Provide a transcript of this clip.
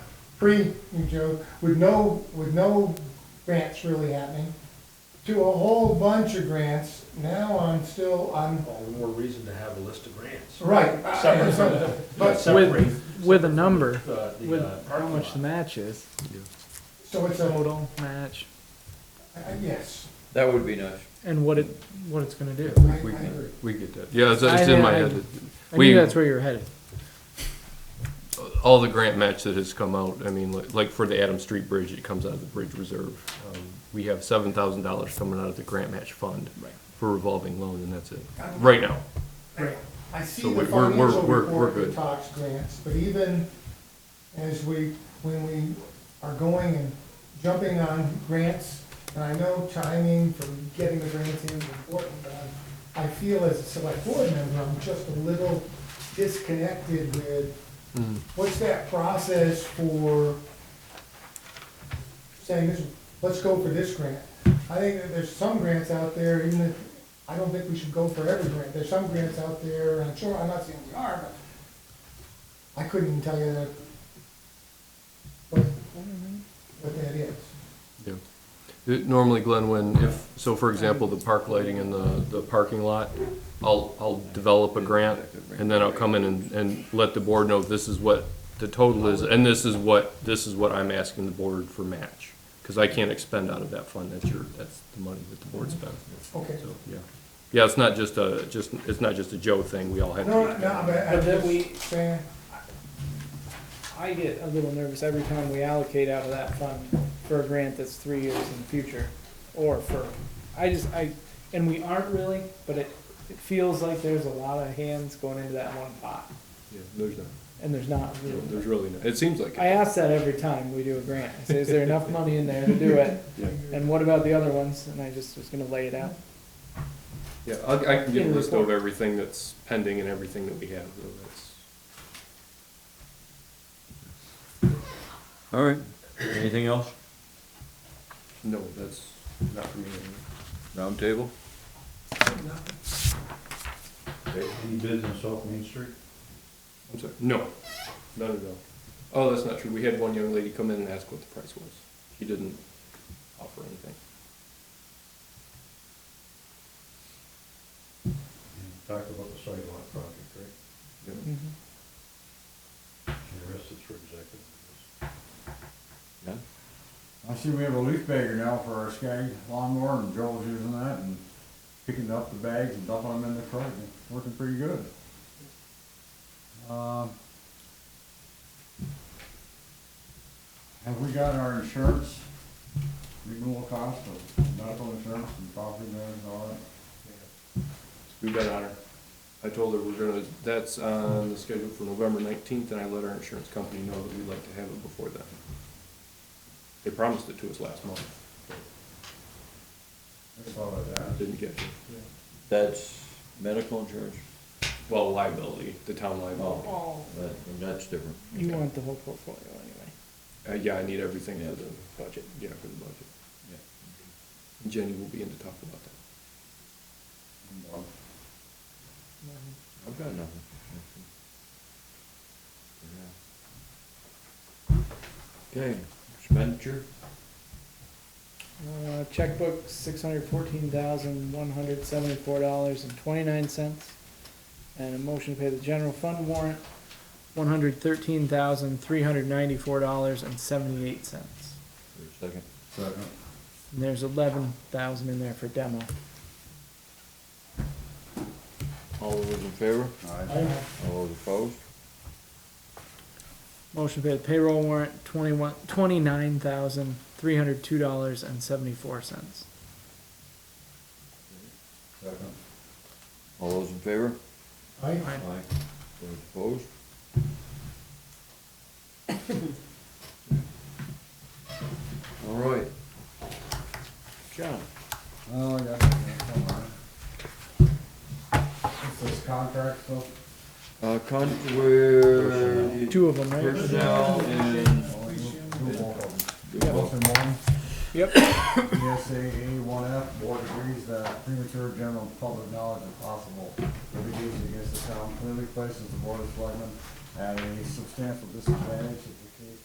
pre, you know, with no, with no grants really happening, to a whole bunch of grants, now I'm still, I'm, All the more reason to have a list of grants. right. I- Separate. so- But, Separate with a number, the, with the uh, how parking much the lot. match is, so it's a, total match, I- yes, That would be nice. and what it, what it's gonna do. I, I agree. We get that. Yeah, it's, it's I- in my I- head. I We- knew that's where you were headed. All the grant match that has come out, I mean, li- like for the Adam Street Bridge, it comes out of the bridge reserve. Um, We have seven thousand dollars coming out of the grant match fund Right. for revolving loan, and that's it, right now. I see the So we- we're- we're- financial we're- we're report that good. talks grants, but even as we, when we are going and jumping on grants, and I know timing for getting the grants in is important, but I'm- I feel as a select board member, I'm just a little disconnected with, what's that process for saying, this? let's go for this grant? I think that there's some grants out there, even if, I don't think we should go for every grant, there's some grants out there, and I'm sure, I'm not saying we are, but I couldn't even tell you that, what, what that is. Yeah. It- Normally, Glenn, when, if, so for example, the park lighting in the, the parking lot, I'll, I'll develop a grant, and then I'll come in and, and let the board know this is what the total is, and this is what, this is what I'm asking the board for match. Because I can't expend out of that fund, that's your, that's the money that the board spends, Okay, so, yeah. Yeah, it's not just a, just, it's not just a Joe thing, we all have. to no, no, get no, but But then I'm we- just saying, I get a little nervous every time we allocate out of that fund for a grant that's three years in the future, or for, I just, I, and we aren't really, but it, it feels like there's a lot of hands going into that one pot, Yeah, There's not, and there's not really. there's really not, it seems like I it. ask that every time we do a grant, I say, is there enough money in there to do it, Yeah. and what about the other ones, and I just was gonna lay it out. Yeah, I, I can get a In the list of report. everything that's pending and everything that we have, though, that's. All right. Anything else? No, that's not for me. anymore. Round table? Any business off Main Street? I'm sorry. No, not at all. Oh, that's not true. We had one young lady come in and ask what the price was. She didn't offer anything. Talk about the sidewalk project, right? Mm-hmm. The rest is for executive. None? I see we have a leaf bagger now for our sky lawnmower, and Joel's using that and picking up the bags and dumping them in the truck, and it's working pretty good. Um, Have we got our insurance, renewal cost of medical insurance and property damage and all that? We've been on her. I told her we're gonna, that's on the schedule for November nineteenth, and I let our insurance company know that we'd like to have it before then. They promised it to us last month, That's all I but got. didn't get it. That's medical insurance? Well, liability, the town liability. Oh, that, that's different. You want the whole portfolio anyway. Uh, yeah, I need everything for the budget, yeah, for the budget. Jenny will be in to talk about that. Um, I've got nothing. Okay, expenditure? Uh, checkbook, six hundred fourteen thousand, one hundred seventy-four dollars and twenty-nine cents. And a motion to pay the general fund warrant, one hundred thirteen thousand, three hundred ninety-four dollars and seventy-eight cents. Wait a second. Second. And there's eleven thousand in there for demo. All those in favor? Aye. All those opposed? Motion to pay the payroll warrant, twenty-one, twenty-nine thousand, three hundred two dollars and seventy-four cents. Second. All those in favor? I, Aye. Those opposed? All right. John? Oh, I got it, come on. It's this contract stuff. Uh, con, where? Two of them, right? Personnel and. Motion one, Yep. ESA one F, board agrees that premature general public knowledge of possible litigation against the town clearly places the board of selectmen at a substantial disadvantage if the